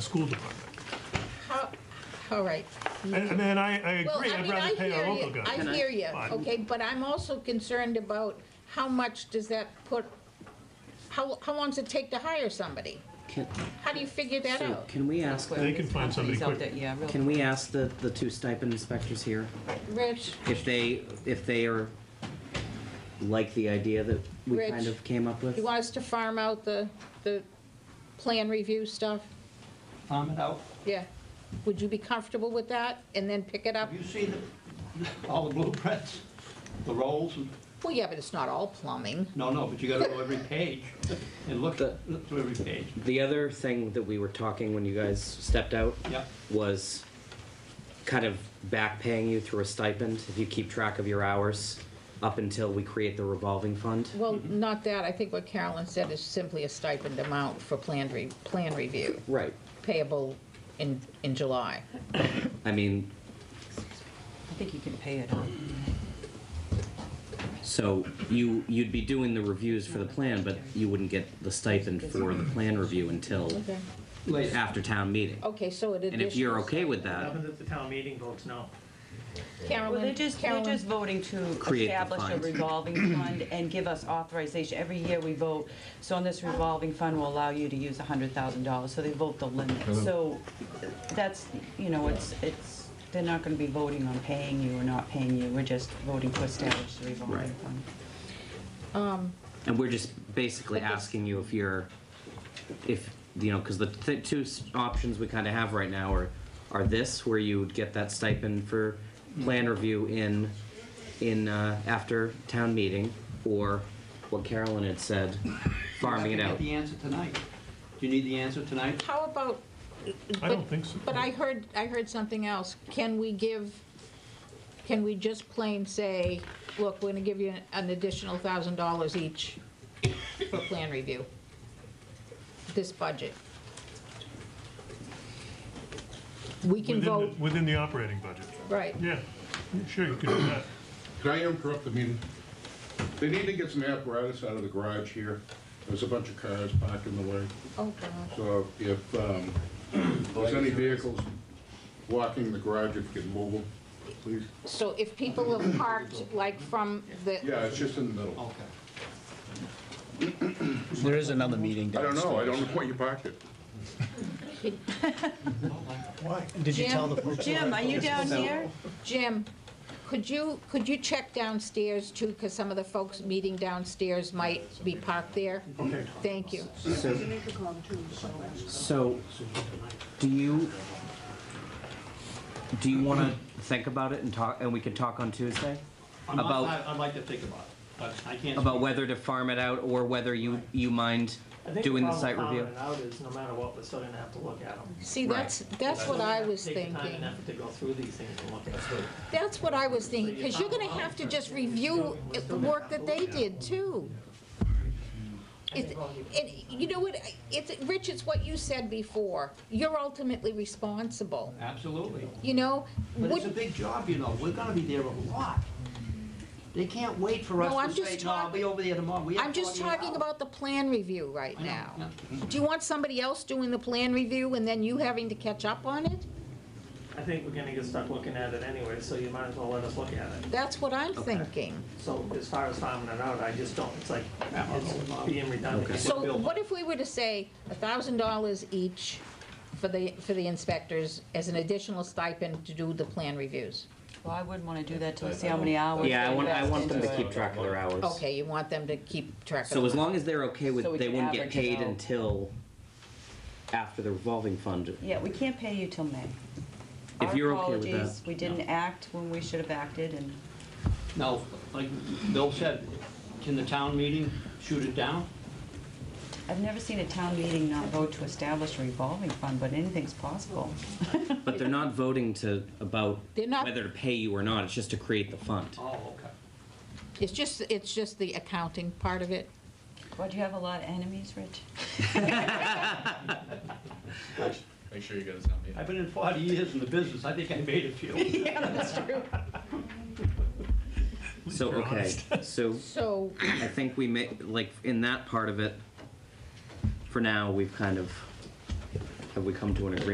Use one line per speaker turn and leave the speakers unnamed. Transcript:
school department.
How, all right.
And, and then I, I
Well,
agree,
I
I'd
mean, I
rather pay
hear
our local guy.
you, I hear you,
Fine.
okay, but I'm also concerned about how much does that put, how, how long does it take to hire somebody?
Can,
How do you figure that
so
out?
can we ask,
They can find somebody quick.
Yeah, real
can we ask the, the two stipend inspectors here
Rich,
if they, if they are like the idea that we
Rich,
kind of came up with?
you want us to farm out the, the plan review stuff?
farm it out.
Yeah. Would you be comfortable with that and then pick it up?
Have you seen the, all the blueprints, the rolls? and-
Well, yeah, but it's not all plumbing.
No, no, but you gotta go every page and look,
The-
look through every page.
The other thing that we were talking when you guys stepped out
Yep.
was kind of back paying you through a stipend if you keep track of your hours up until we create the revolving fund.
Well,
Mm-hmm.
not that, I think what Carolyn said is simply a stipend amount for plan re, plan review
Right.
payable in, in July.
I mean,
I think you can pay it off.
so you, you'd be doing the reviews for the plan, but you wouldn't get the stipend for the plan review until
Okay.
Later,
after town meeting.
Okay, so it
And if you're
additions-
okay with that,
Happens if the town meeting votes no.
Well, they're
Carolyn,
just, they're
Carolyn,
just voting to
Create the
establish a
fund.
revolving fund and give us authorization. Every year we vote, so on this revolving fund will allow you to use $100,000, so they vote the limit. So that's, you know, it's, it's, they're not gonna be voting on paying you or not paying you, we're just voting to establish the revolving
Right.
fund.
and we're just basically asking you if you're, if, you know, because the th- two s- options we kind of have right now are, are this, where you would get that stipend for plan review in, in, uh, after town meeting, or what Carolyn had said, farming it
You have
out.
to get the answer tonight. Do you need the answer tonight?
how about,
I don't think so.
but I heard, I heard something else. Can we give, can we just plain say, look, we're gonna give you an additional thousand dollars each for plan review? This budget? We can
Within the-
vote,
Within the operating budget.
right.
Yeah, sure, you could do that.
Can I interrupt the meeting? They need to get some apparatus out of the garage here. There's a bunch of cars parked in the way.
Oh, God.
So if um, there's any vehicles walking the garage, if you can move them, please.
So if people have parked, like, from the,
Yeah, it's just in the middle.
Okay.
There is another meeting
I don't
downstairs.
know, I don't know where you parked it.
Did you tell
Jim?
the folks?
Jim, are you down here?
Jim, could you, could you check downstairs too? Because some of the folks meeting downstairs might be parked there. Okay. Thank you.
So, so, do you, do you wanna think about it and talk, and we can talk on Tuesday?
I'm- I'm-
About-
I- I'd like to think about it, but I can't.
About
speak.
whether to farm it out or whether you, you mind
I think
doing the site review?
problem with farming it out is, no matter what, we're still gonna have to look at them.
See, that's, that's what I was
Take the time
thinking.
and effort to go through these things and look at them.
That's what I was thinking, because you're gonna have to just review it- the work that they did too. It, it, you know what, it's, Rich, it's what you said before. You're ultimately responsible,
Absolutely.
you know?
But it's a
Wouldn't-
big job, you know, we're gonna be there a lot. They can't wait for
No, I'm
us to
just
say, no, I'll be
talking-
over there tomorrow. We have
I'm just
48
talking
hours."
about the plan review right
I know,
now.
yeah.
Do you want somebody else doing the plan review and then you having to catch up on it?
I think we're gonna get stuck looking at it anyway, so you might as well let us look at it.
That's what I'm thinking.
So as far as farming it out, I just don't, it's like, it's being redundant.
So
Bill.
what if we were to say thousand dollars each for the, for the inspectors as an additional stipend to do the plan reviews?
Well, I wouldn't wanna do that till I see how many hours.
Yeah, I
they
want, I
invest
want them to
into it.
keep track of their hours.
Okay, you want them to keep track of.
So as long as they're okay
So
with,
we
they
can
wouldn't get
average it
paid
out.
until after the revolving fund.
Yeah, we can't pay you till May.
If
Our
you're okay with that.
apologies, We didn't act when we should have acted, and
No, like Bill said, can the town meeting shoot it down?
I've never seen a town meeting not vote to establish a revolving fund, but anything's possible.
But they're not voting to, about
They're not-
whether to pay you or not, it's just to create the fund.
Oh, okay.
It's just, it's just the accounting part of it.
Why, do you have a lot of enemies, Rich?
Make sure you go to town meeting.
I've been in 40 years in the business, I think I made a few.
So, okay, so
So,
I think we may, like, in that part of it, for now, we've kind of, I have we come to an agreement